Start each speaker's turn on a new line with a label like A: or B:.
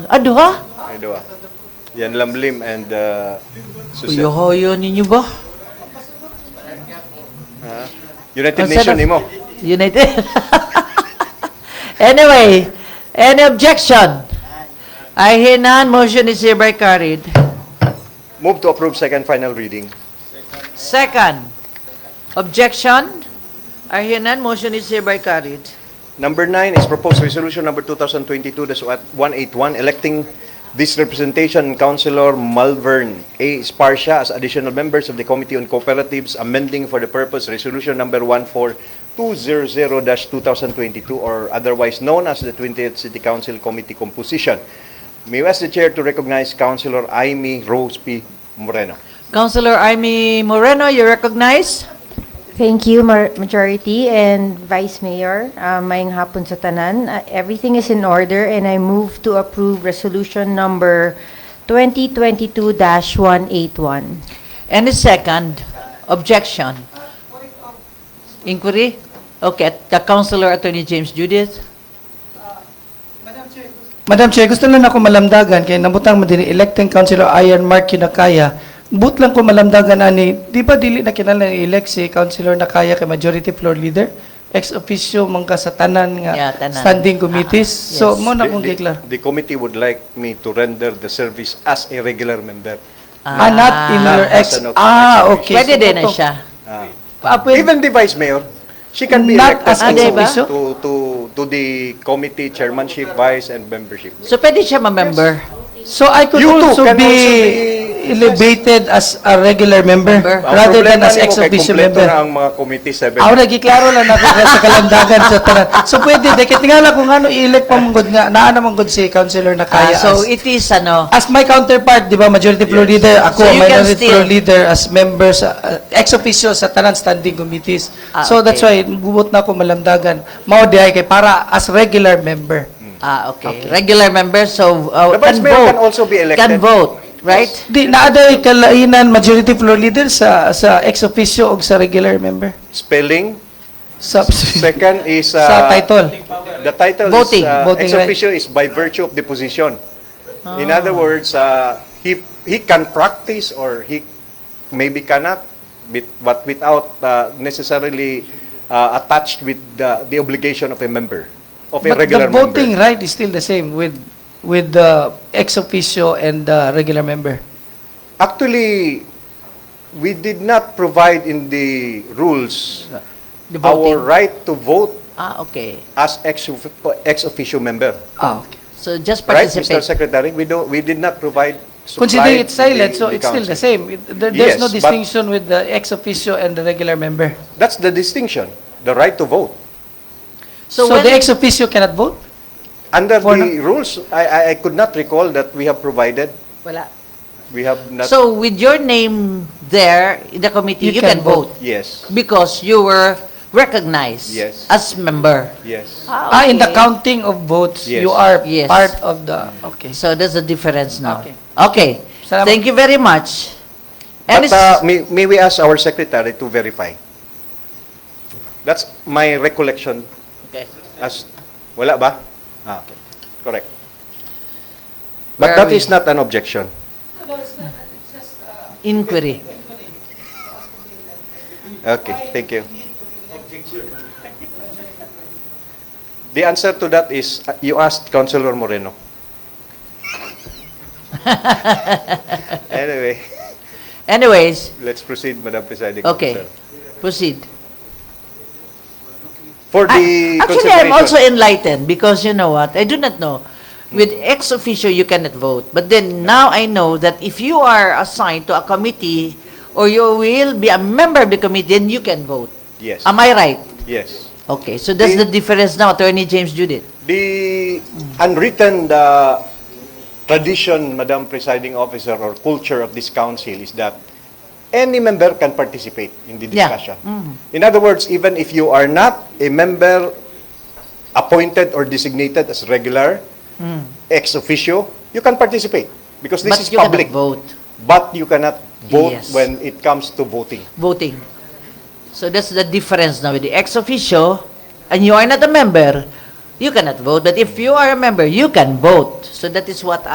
A: Aduha?
B: Ay, duwa. Yan lamlim and uh,
A: Kuya
B: Susan.
A: hoyo ninyo ba?
B: Ha? United
A: Ang sarap.
B: Nation nimo.
A: United. anyway, any objection? I hear none. Motion is hereby carried.
B: Move to approve second final reading.
A: Second, objection? I hear none. Motion is hereby carried.
B: Number nine is proposed resolution number 2022-181, electing this representation Councilor Malvern A. Sparsha as additional members of the Committee on Cooperatives, amending for the purpose resolution number 14200-2022, or otherwise known as the 20th City Council Committee composition. May I ask the chair to recognize Councilor Aimee Rose P. Moreno.
A: Councilor Amy Moreno, you recognize?
C: Thank you, Mar- Majority and Vice Mayor. Uh, Mayang hapon sa tanan. Uh, Everything is in order and I move to approve Resolution Number 2022-181.
A: Any second objection? Inquiry? Okay, the Councilor Attorney James Judith.
D: Madam Chair, gusto lang ako malamdagan kay nabutang mo din electing councilor Iron Mark Kinakaya. But lang ko malamdagan ani, di ba dili na kinala ni elect si councilor Nakaya kay majority floor leader? Ex officio mangka sa tanan nga
A: Yeah, tanan.
D: standing committees.
A: Ah,
D: So
A: yes.
D: mo na
B: The-
D: kong
B: the-
D: giklar.
B: The committee would like me to render the service as a regular member.
D: Ah, not in your
B: Ah.
D: ex.
B: As an
D: Ah, okay.
A: Pwede
D: So,
A: din na
D: totoo.
A: siya.
B: Ah.
D: Ah, pwede.
B: Even the vice mayor, she can be
D: Not
B: elected
D: as
A: an
B: to,
A: officer?
B: to, to, to the committee, chairmanship, vice, and membership.
A: So pwede siya ma-member.
D: So I could
B: You too
D: also
B: can
D: be
B: also be-
D: elevated as a regular member
B: Ang
D: rather than
B: problema
D: as
B: nimo
D: ex
B: kay
D: officio
B: kumpleto
D: member.
B: na ang mga committee, seven.
D: Ako nagiklaro Ah, lang ako nga sa kalandagan sa tanan. So pwede, dekit nga lang kung ano i-elect pa mong good nga, naana mong good si councilor na
A: Ah,
D: kaya.
A: so
D: as,
A: it is ano,
D: as my counterpart, di ba, majority floor leader, ako,
A: So you can
D: minority
A: still-
D: floor leader as member sa, uh, ex officio sa tanan standing committees.
A: Ah,
D: so that's
A: okay.
D: why, gubot na ako malamdagan. Mao di ay kay para as regular member.
A: ah, okay, regular member, so uh,
B: The
A: can
B: vice mayor
A: vote.
B: can also be elected.
A: Can vote, right?
D: Di, naaday kalainan majority floor leader sa sa ex officio o sa regular member.
B: Spelling.
D: Sa,
B: Second is... uh,
D: sa title.
B: The title
A: Voting,
B: is... uh,
D: voting
B: ex
D: right. Ah.
B: officio is by virtue of the position. In other words, uh, he, he can practice or he maybe cannot, with- but without uh, necessarily uh, attached with the, the obligation of a member, of a
D: But
B: regular
D: the
B: member.
D: voting right is still the same with with the ex officio and the regular member.
B: Actually, we did not provide in the rules
D: The
B: our
D: voting.
B: right to vote
A: Ah, okay.
B: as ex ex officio member.
D: Ah, okay.
A: So just
B: Right, Mr.
A: participate.
B: Secretary? We don't, we did not provide. supply
D: Considering it's
B: to
D: silent,
B: the-
D: so
B: the
D: it's still the
B: council.
D: same. It- there- There's
B: Yes,
D: no
B: but-
D: distinction with the ex officio and the regular member.
B: That's the distinction, the right to vote.
A: So
D: So
A: when-
D: the ex officio cannot vote?
B: Under
D: For
B: the rules, I, I, I could not recall that we have provided,
A: Wala.
B: we have not,
A: So with your name there in the committee,
D: You
A: you can
D: can
A: vote
B: yes,
A: because you were recognized
B: Yes.
A: as member.
B: yes.
A: Uh,
D: Ah, in the
A: okay.
D: counting of votes,
B: Yes.
D: you are
A: Yes.
D: part of the, okay.
A: So there's a difference now.
D: Okay.
A: Okay.
D: Salamat.
A: Thank you very much. And
B: But
A: it's-
B: uh, may, may we ask our secretary to verify? That's my recollection
A: Okay.
B: as, wala ba? Ah, correct.
A: Where
B: But
A: are
B: that
A: we?
B: is not an objection.
A: inquiry.
B: Okay, thank you. The answer to that is, uh, you asked Councilor Moreno. Anyway,
A: Anyways,
B: let's proceed, Madam Presiding
A: okay.
B: Officer.
A: Proceed.
B: For
A: I-
B: the
A: Ah, Actually, I'm also
B: consideration,
A: enlightened because you know what? I do not know. With ex officio, you cannot vote. But then now I know that if you are assigned to a committee or you will be a member of the committee, then you can vote.
B: yes,
A: Am I right?
B: yes.
A: Okay, so that's the
B: The-
A: difference now, Attorney James Judith.
B: The unwritten uh, tradition, Madam Presiding Officer, or culture of this council is that any member can participate in the
A: Yeah. Mm-hmm.
B: discussion. In other words, even if you are not a member appointed or designated as regular, ex officio, you can participate because
A: Mm.
B: this
A: But
B: is
A: you cannot
B: public.
A: vote,
B: But you cannot vote
A: Yes.
B: when it comes to voting.
A: voting. So that's the difference now with the ex officio, and you are not a member, you cannot vote. But if you are a member, you can vote. So that is what